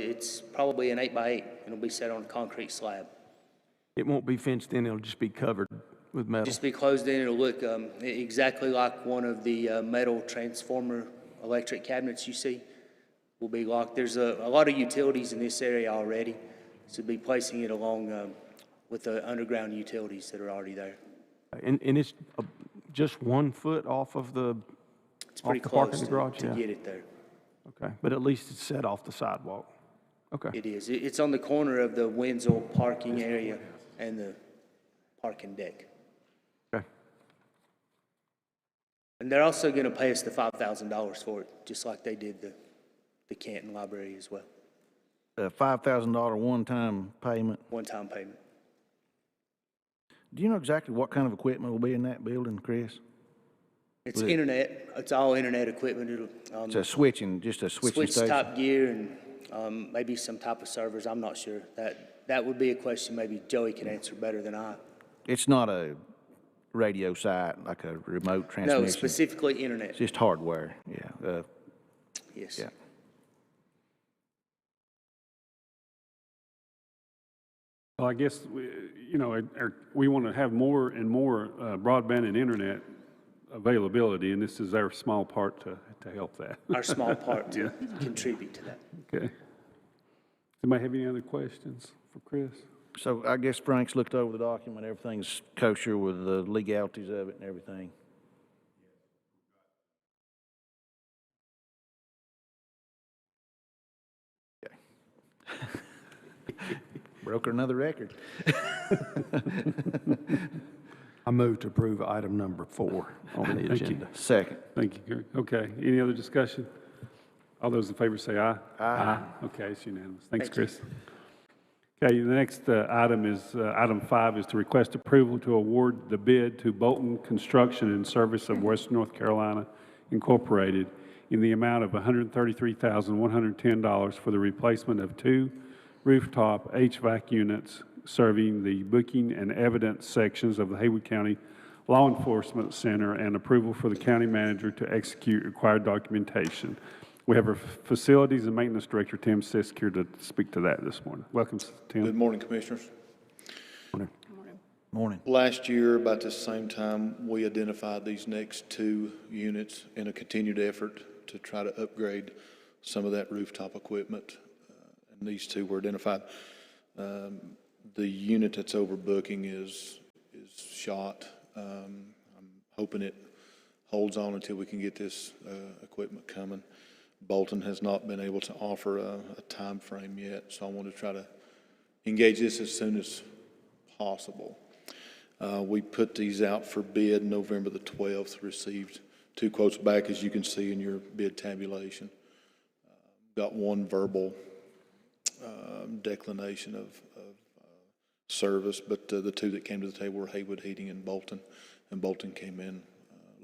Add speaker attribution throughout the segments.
Speaker 1: It's probably an eight by eight. It'll be set on a concrete slab.
Speaker 2: It won't be fenced in, it'll just be covered with metal.
Speaker 1: Just be closed in, it'll look um, e- exactly like one of the uh, metal transformer electric cabinets you see will be locked. There's a, a lot of utilities in this area already, so be placing it along um, with the underground utilities that are already there.
Speaker 2: And, and it's uh, just one foot off of the,
Speaker 1: It's pretty
Speaker 2: the parking
Speaker 1: close to
Speaker 2: garage,
Speaker 1: to
Speaker 2: yeah.
Speaker 1: get it there.
Speaker 2: okay, but at least it's set off the sidewalk. Okay,
Speaker 1: It is. It- It's on the corner of the Wenzel parking area and the parking deck.
Speaker 2: okay.
Speaker 1: And they're also going to pay us the $5,000 for it, just like they did the, the Canton Library as well,
Speaker 3: a five thousand dollar one-time payment.
Speaker 1: one-time payment.
Speaker 3: Do you know exactly what kind of equipment will be in that building, Chris?
Speaker 1: It's internet, it's all internet equipment, it'll,
Speaker 3: It's
Speaker 1: um,
Speaker 3: a switching, just a switching
Speaker 1: switch
Speaker 3: station.
Speaker 1: top gear and, um, maybe some type of servers, I'm not sure. That, that would be a question maybe Joey can answer better than I.
Speaker 3: It's not a radio site, like a remote
Speaker 1: No,
Speaker 3: transmission. It's
Speaker 1: specifically internet,
Speaker 3: just hardware, yeah, uh,
Speaker 1: yes.
Speaker 3: yeah.
Speaker 4: Well, I guess, we- you know, it- our- we want to have more and more uh, broadband and internet availability, and this is our small part to, to help that.
Speaker 1: Our small part to contribute to that.
Speaker 4: Okay. Anybody have any other questions for Chris?
Speaker 3: So I guess Frank's looked over the document, everything's kosher with the legalities of it and everything. Okay. Broke another record.
Speaker 5: I move to approve item number four on the agenda.
Speaker 3: Second.
Speaker 4: Thank you, Gary. Okay, any other discussion? All those in favor say aye. Aye. Okay, it's unanimous. Thanks, Chris. Okay, the next uh, item is, uh, item five is to request approval to award the bid to Bolton Construction and Service of West North Carolina Incorporated in the amount of $133,110 for the replacement of two rooftop HVAC units serving the booking and evidence sections of the Haywood County Law Enforcement Center and approval for the county manager to execute required documentation. We have our facilities and maintenance director, Tim Sisk, here to speak to that this morning. Welcome,
Speaker 6: Good
Speaker 4: Tim.
Speaker 6: morning, Commissioners.
Speaker 3: Morning.
Speaker 6: Last year, about this same time, we identified these next two units in a continued effort to try to upgrade some of that rooftop equipment. Uh, And these two were identified. Um, The unit that's overbooking is, is shot. Um, I'm hoping it holds on until we can get this uh, equipment coming. Bolton has not been able to offer a a timeframe yet, so I want to try to engage this as soon as possible. Uh, We put these out for bid November the 12th, received two quotes back, as you can see in your bid tabulation. Uh, Got one verbal um, declination of, of uh, service, but uh, the two that came to the table were Haywood Heating and Bolton, and Bolton came in uh,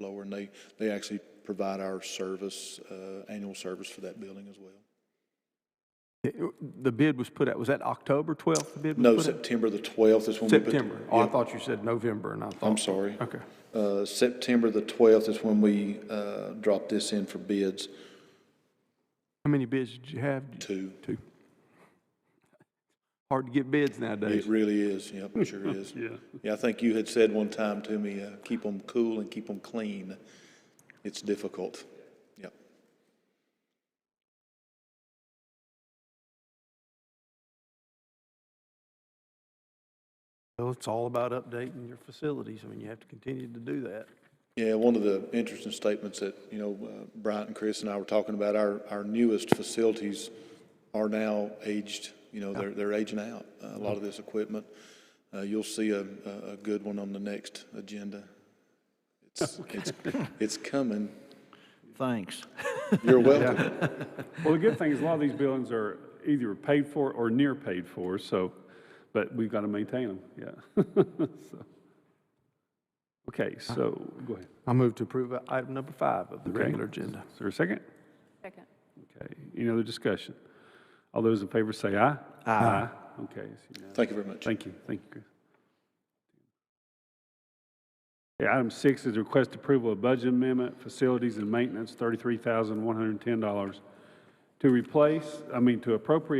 Speaker 6: lower, and they, they actually provide our service, uh, annual service for that building as well.
Speaker 2: uh, The bid was put out, was that October 12th the bid was
Speaker 6: No,
Speaker 2: put out?
Speaker 6: September the 12th is when we put. the-
Speaker 2: September. Oh, I
Speaker 6: Yeah.
Speaker 2: thought you said November, and I thought.
Speaker 6: I'm sorry.
Speaker 2: Okay.
Speaker 6: Uh, September the 12th is when we uh, drop this in for bids
Speaker 2: How many bids did you have?
Speaker 6: Two.
Speaker 2: Two. Hard to get bids
Speaker 6: It
Speaker 2: nowadays.
Speaker 6: really is, yep, it sure is.
Speaker 4: Yeah.
Speaker 6: Yeah, I think you had said one time to me, uh, keep them cool and keep them clean. It's difficult, yep.
Speaker 5: Well, it's all about updating your facilities. I mean, you have to continue to do that.
Speaker 6: Yeah, one of the interesting statements that, you know, uh, Bryant and Chris and I were talking about, our, our newest facilities are now aged, you know, they're, they're aging out, uh, a lot of this equipment. Uh, You'll see a, a a good one on the next agenda. It's, it's, it's coming.
Speaker 3: Thanks.
Speaker 6: You're welcome.
Speaker 4: Well, the good thing is a lot of these buildings are either paid for or near paid for, so, but we've got to maintain them, yeah. So. Okay, so, go ahead.
Speaker 2: I move to approve item number five of the
Speaker 4: Okay.
Speaker 2: regular agenda.
Speaker 4: Is there a second?
Speaker 7: Second.
Speaker 4: Okay, any other discussion? All those in favor say aye. Aye. Okay, it's unanimous.
Speaker 6: Thank you very much.
Speaker 4: Thank you, thank you, Chris. Okay, item six is request approval of budget amendment, facilities and maintenance, thirty-three thousand, one hundred and ten dollars to replace, I mean, to appropriate